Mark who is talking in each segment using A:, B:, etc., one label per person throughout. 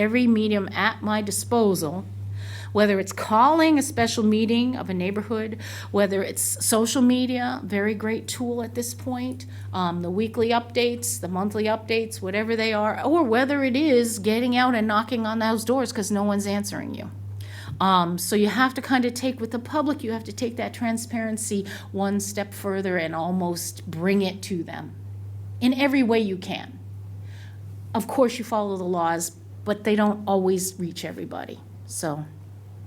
A: every medium at my disposal, whether it's calling a special meeting of a neighborhood, whether it's social media, very great tool at this point, um, the weekly updates, the monthly updates, whatever they are, or whether it is getting out and knocking on those doors because no one's answering you. Um, so you have to kind of take with the public, you have to take that transparency one step further and almost bring it to them in every way you can. Of course, you follow the laws, but they don't always reach everybody. So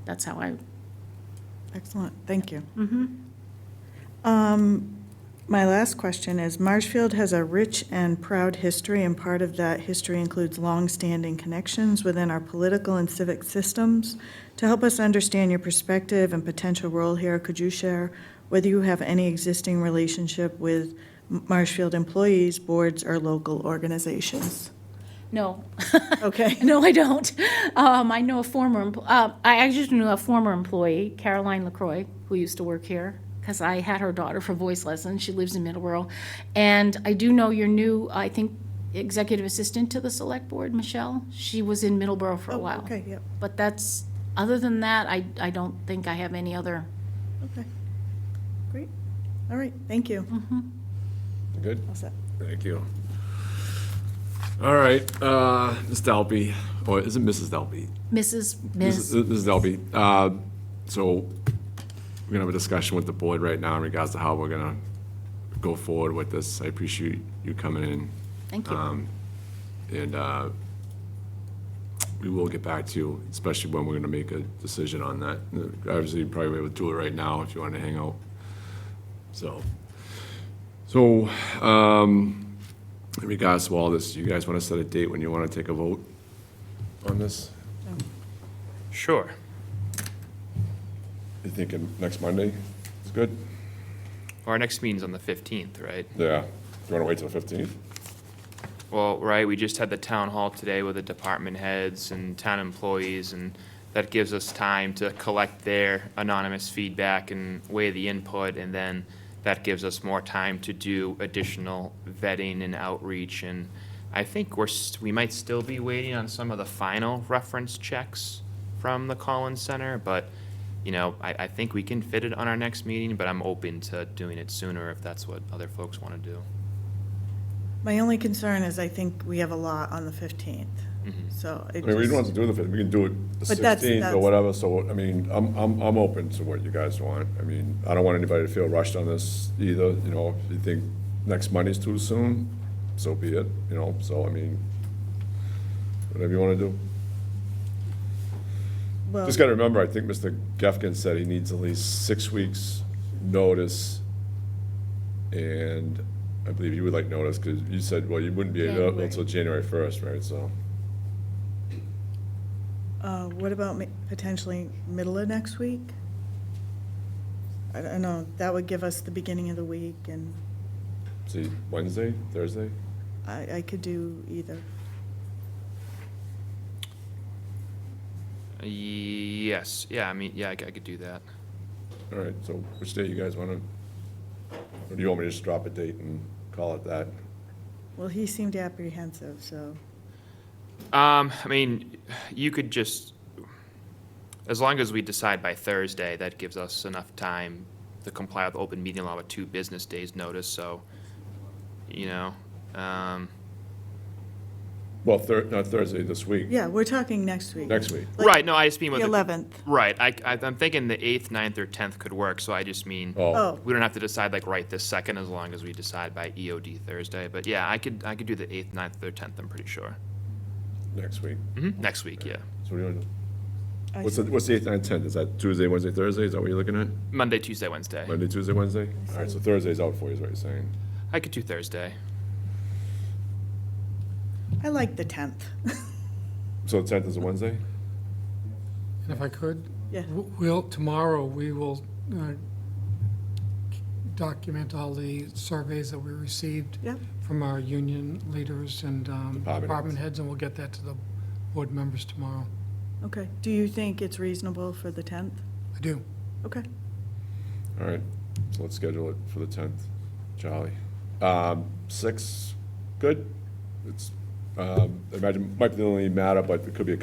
A: that's how I,
B: Excellent, thank you. Um, My last question is, Marshfield has a rich and proud history, and part of that history includes longstanding connections within our political and civic systems. To help us understand your perspective and potential role here, could you share whether you have any existing relationship with M- Marshfield employees, boards, or local organizations?
A: no,
B: Okay.
A: no, I don't. Um, I know a former, empl- uh, I actually knew a former employee, Caroline LaCroix, who used to work here, because I had her daughter for voice lessons. She lives in Middleborough. And I do know your new, I think, executive assistant to the select board, Michelle. She was in Middleborough for a
B: Oh,
A: while.
B: Okay, yep,
A: But that's, other than that, I, I don't think I have any other.
B: okay. Great, all right, thank you.
C: Good,
B: All set.
C: thank you. All right, uh, Ms. Delpy, or is it Mrs. Delpy?
A: Mrs. Ms.
C: Mrs. Mrs. Delpy, uh, so we're gonna have a discussion with the board right now in regards to how we're gonna go forward with this. I appreciate you coming in,
A: Thank you.
C: um, and, uh, we will get back to you, especially when we're gonna make a decision on that. Obviously, you probably would do it right now if you wanna hang out, so. So, um, in regards to all this, you guys wanna set a date when you wanna take a vote on this?
D: Sure.
C: You thinking next Monday is good?
D: Our next meeting's on the 15th, right?
C: Yeah. Do you want to wait till the fifteenth?
D: Well, right, we just had the town hall today with the department heads and town employees, and that gives us time to collect their anonymous feedback and weigh the input, and then that gives us more time to do additional vetting and outreach, and I think we're, s- we might still be waiting on some of the final reference checks from the Collins Center, but, you know, I, I think we can fit it on our next meeting, but I'm open to doing it sooner if that's what other folks want to do.
B: My only concern is I think we have a lot on the 15th,
D: Mhm.
B: so
C: I
B: it
C: mean, we don't have to
B: just,
C: do the fifteenth, we can do it the
B: But that's-
C: sixteenth or
B: that's-
C: whatever, so, I mean, I'm, I'm, I'm open to what you guys want. I mean, I don't want anybody to feel rushed on this either, you know, if you think next Monday's too soon, so be it, you know, so, I mean, whatever you want to do.
B: well,
C: Just got to remember, I think Mr. Gefkin said he needs at least six weeks' notice. And I believe you would like notice, because you said, well, you wouldn't be able
A: January.
C: until January first, right, so.
B: uh, what about ma- potentially middle of next week? I don't know, that would give us the beginning of the week, and
C: See, Wednesday, Thursday?
B: I, I could do either.
D: Yes, yeah, I mean, yeah, I c- I could do that.
C: All right, so which day you guys want to? Or do you want me to just drop a date and call it that?
B: Well, he seemed apprehensive, so,
D: Um, I mean, you could just, as long as we decide by Thursday, that gives us enough time to comply with open meeting law with two business days' notice, so, you know, um,
C: Well, Thur, not Thursday, this week,
B: yeah, we're talking next week.
C: next week.
B: Like
D: right, no, I just mean
B: The
D: with.
B: 11th.
D: Right, I, I- I'm thinking the eighth, ninth, or tenth could work, so I just mean,
C: Oh,
B: Oh,
D: we don't have to decide like right this second, as long as we decide by EOD Thursday, but yeah, I could, I could do the eighth, ninth, or tenth, I'm pretty sure.
C: next week.
D: hmm next week, yeah.
C: So what do you want to do?
B: I
C: What's the,
B: see.
C: what's the eighth, ninth, tenth? Is that Tuesday, Wednesday, Thursday? Is that what you're looking at?
D: Monday, Tuesday, Wednesday.
C: Monday, Tuesday, Wednesday? All right, so Thursday's out for you, is what you're saying.
D: I could do Thursday.
B: I like the 10th.
C: So the tenth is a Wednesday?
E: And if I could,
B: Yeah.
E: w- we'll, tomorrow, we will uh, document all the surveys that we received
B: Yep.
E: from our union leaders and um,
C: Department heads.
E: department heads, and we'll get that to the board members tomorrow.
B: Okay, do you think it's reasonable for the 10th?
E: I do.
B: Okay,
C: All right, so let's schedule it for the tenth. Jolly. Um, six, good? It's, um, I imagine, might be the only matter, but it could be a couple